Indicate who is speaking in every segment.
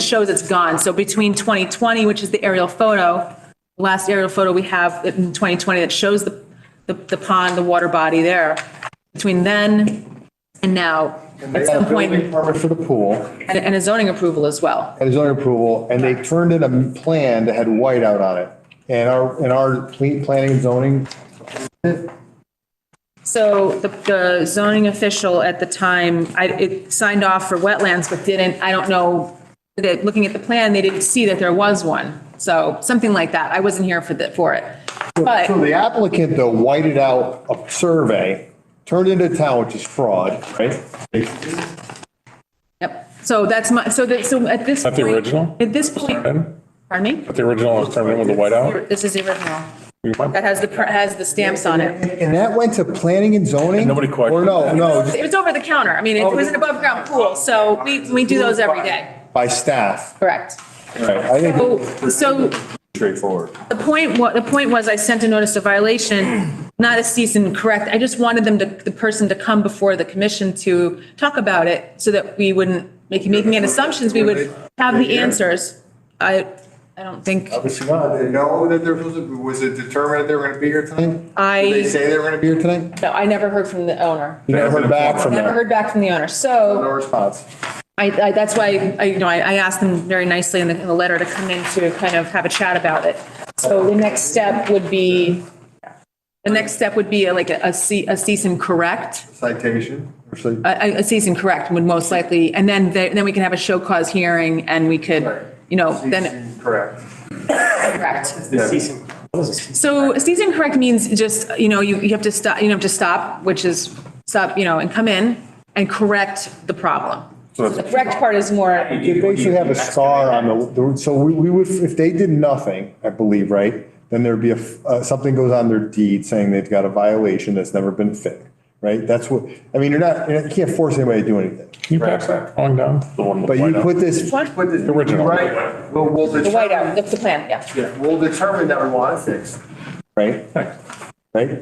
Speaker 1: shows it's gone. So between 2020, which is the aerial photo, the last aerial photo we have in 2020 that shows the, the- the pond, the water body there, between then and now, at some
Speaker 2: Building
Speaker 1: point,
Speaker 2: permit for the pool
Speaker 1: and and a zoning approval as well.
Speaker 2: and zoning approval, and they turned in a plan that had whiteout on it. And our, and our ple- planning and zoning,
Speaker 1: So the, the zoning official at the time, I, it signed off for wetlands, but didn't, I don't know, that, looking at the plan, they didn't see that there was one. So something like that. I wasn't here for the, for it. But.
Speaker 2: so the applicant though whited out a survey, turned into town, which is fraud, right?
Speaker 1: Yep, so that's my, so that, so at this.
Speaker 3: Not the
Speaker 1: point-
Speaker 3: original?
Speaker 1: At this point,
Speaker 3: Pardon?
Speaker 1: pardon me?
Speaker 3: The original is turned in with the whiteout.
Speaker 1: This is the original,
Speaker 3: You
Speaker 1: that
Speaker 3: might-
Speaker 1: has the, pr- has the stamps on it.
Speaker 2: And that went to planning and zoning?
Speaker 3: And nobody questioned
Speaker 2: Or no,
Speaker 3: that.
Speaker 2: no, just Oh,
Speaker 1: It was over the counter, I mean, it was an above ground pool, so we, we do those every day,
Speaker 2: by staff.
Speaker 1: correct?
Speaker 2: I think
Speaker 1: So, so
Speaker 4: straightforward.
Speaker 1: the point, what, the point was I sent a notice of violation, not a cease and correct, I just wanted them to, the person to come before the commission to talk about it so that we wouldn't, make making any assumptions, we would have the answers. I, I don't think.
Speaker 2: Obviously not.
Speaker 4: They know that they're supposed to, was it determined that they were gonna be here tonight?
Speaker 1: I-
Speaker 4: Did they say they were gonna be here tonight?
Speaker 1: No, I never heard from the owner.
Speaker 2: You never heard back from
Speaker 1: Never
Speaker 2: them.
Speaker 1: heard back from the owner.
Speaker 4: No
Speaker 1: So
Speaker 4: response.
Speaker 1: I, I, that's why, I, you know, I, I asked them very nicely in the, in the letter to come in to kind of have a chat about it. So the next step would be, the next step would be like a, a ce- a cease and correct.
Speaker 4: Citation.
Speaker 2: Actually,
Speaker 1: A, a cease and correct would most likely, and then, they- then we can have a show cause hearing and we could, you know, then,
Speaker 4: Correct.
Speaker 1: correct.
Speaker 4: Yeah.
Speaker 1: So a cease and correct means just, you know, you, you have to stop, you have to stop, which is stop, you know, and come in and correct the problem. The correct part is more,
Speaker 2: They basically have a scar on the- the, so we, we would, if they did nothing, I believe, right? Then there'd be a, f- uh, something goes on their deed saying they've got a violation that's never been fixed, right? That's what, I mean, you're not, you can't force anybody to do anything.
Speaker 3: Can you pass that drawing down? The one with
Speaker 2: But
Speaker 3: the
Speaker 2: you
Speaker 3: whiteout.
Speaker 2: put this,
Speaker 1: what?
Speaker 4: But the-
Speaker 3: Original.
Speaker 4: Right, well, we'll
Speaker 1: The whiteout,
Speaker 4: determine,
Speaker 1: that's the plan, yeah.
Speaker 4: yeah, we'll determine that we want it fixed.
Speaker 2: right, right?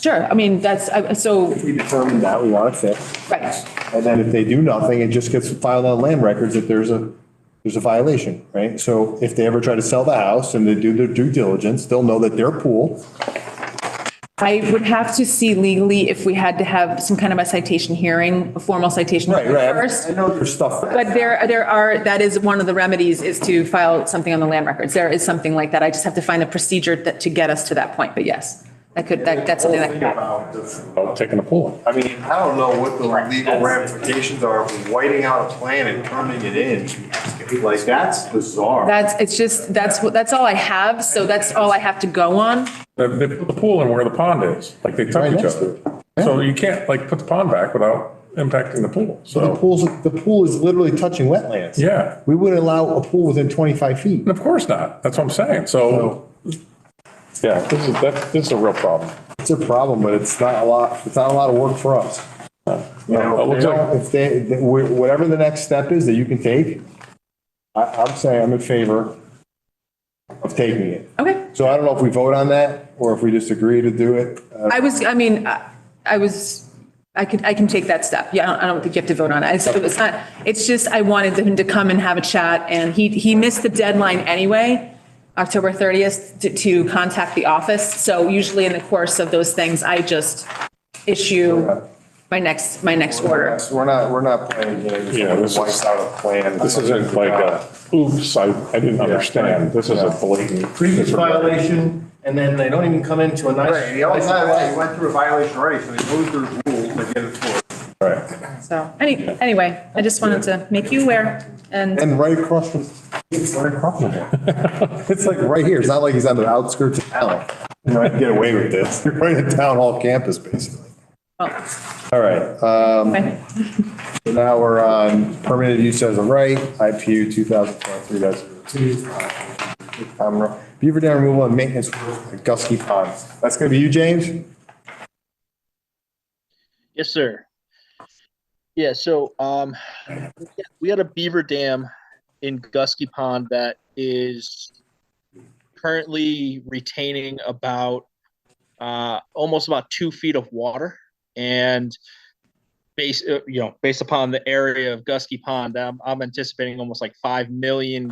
Speaker 1: Sure, I mean, that's, I- so,
Speaker 2: We determine that, we want it fixed.
Speaker 1: right.
Speaker 2: And then if they do nothing, it just gets filed on land records that there's a, there's a violation, right? So if they ever try to sell the house and they do their due diligence, they'll know that their pool
Speaker 1: I would have to see legally if we had to have some kind of a citation hearing, a formal citation
Speaker 2: Right, right.
Speaker 1: first.
Speaker 2: I know there's stuff.
Speaker 1: But there, there are, that is one of the remedies is to file something on the land records. There is something like that. I just have to find the procedure that, to get us to that point, but yes. That could, that, that's something that could happen.
Speaker 3: About Taking the pool.
Speaker 4: I mean, I don't know what the legal ramifications are of whiting out a plan and turning it in. Like, that's bizarre.
Speaker 1: That's, it's just, that's, what that's all I have, so that's all I have to go on.
Speaker 3: They, they put the pool in where the pond is, like they took
Speaker 2: Right
Speaker 3: each
Speaker 2: next
Speaker 3: other. So you can't like put the pond back without impacting the pool.
Speaker 2: The
Speaker 3: So,
Speaker 2: pools, the pool is literally touching wetlands.
Speaker 3: yeah,
Speaker 2: We wouldn't allow a pool within 25 feet.
Speaker 3: and of course not. That's what I'm saying. So, yeah, this is, that, this is a real problem.
Speaker 2: It's a problem, but it's not a lot, it's not a lot of work for us. You
Speaker 3: It
Speaker 2: know,
Speaker 3: looks
Speaker 2: if
Speaker 3: like-
Speaker 2: they- if they, th- wh- whatever the next step is that you can take, I, I'm saying I'm in favor of taking it.
Speaker 1: Okay.
Speaker 2: So I don't know if we vote on that or if we just agree to do it. Uh,
Speaker 1: I was, I mean, I I was, I could, I can take that step. Yeah, I don't, I don't think you have to vote on it. It's- It's not, it's just, I wanted him to come and have a chat and he, he missed the deadline anyway, October 30th, to, to contact the office. So usually in the course of those things, I just issue my next, my next order.
Speaker 4: We're not, we're not playing games.
Speaker 3: Yeah, this is-
Speaker 4: Wipes out a plan.
Speaker 3: This isn't like a, oops, I, I didn't understand. This is a blatant.
Speaker 5: previous violation, and then they don't even come into a nice.
Speaker 4: Right, the only time that you went through a violation already, so they moved their rules to get it for.
Speaker 3: Right.
Speaker 1: So, any, anyway, I just wanted to make you aware and.
Speaker 2: And right across from, it's right across from him. It's like right here. It's not like he's on the outskirts of town. You know, I can get away with this. You're right at town hall campus, basically.
Speaker 1: well,
Speaker 2: All right, um,
Speaker 1: anyway.
Speaker 2: so now we're on permitted use as a right, IPU 2023-02. Um, Beaver dam removal and maintenance at Gusky Pond. That's gonna be you, James?
Speaker 6: Yes, sir. Yeah, so um, we had a beaver dam in Gusky Pond that is currently retaining about uh, almost about two feet of water. And based, you know, based upon the area of Gusky Pond, I'm, I'm anticipating almost like 5 million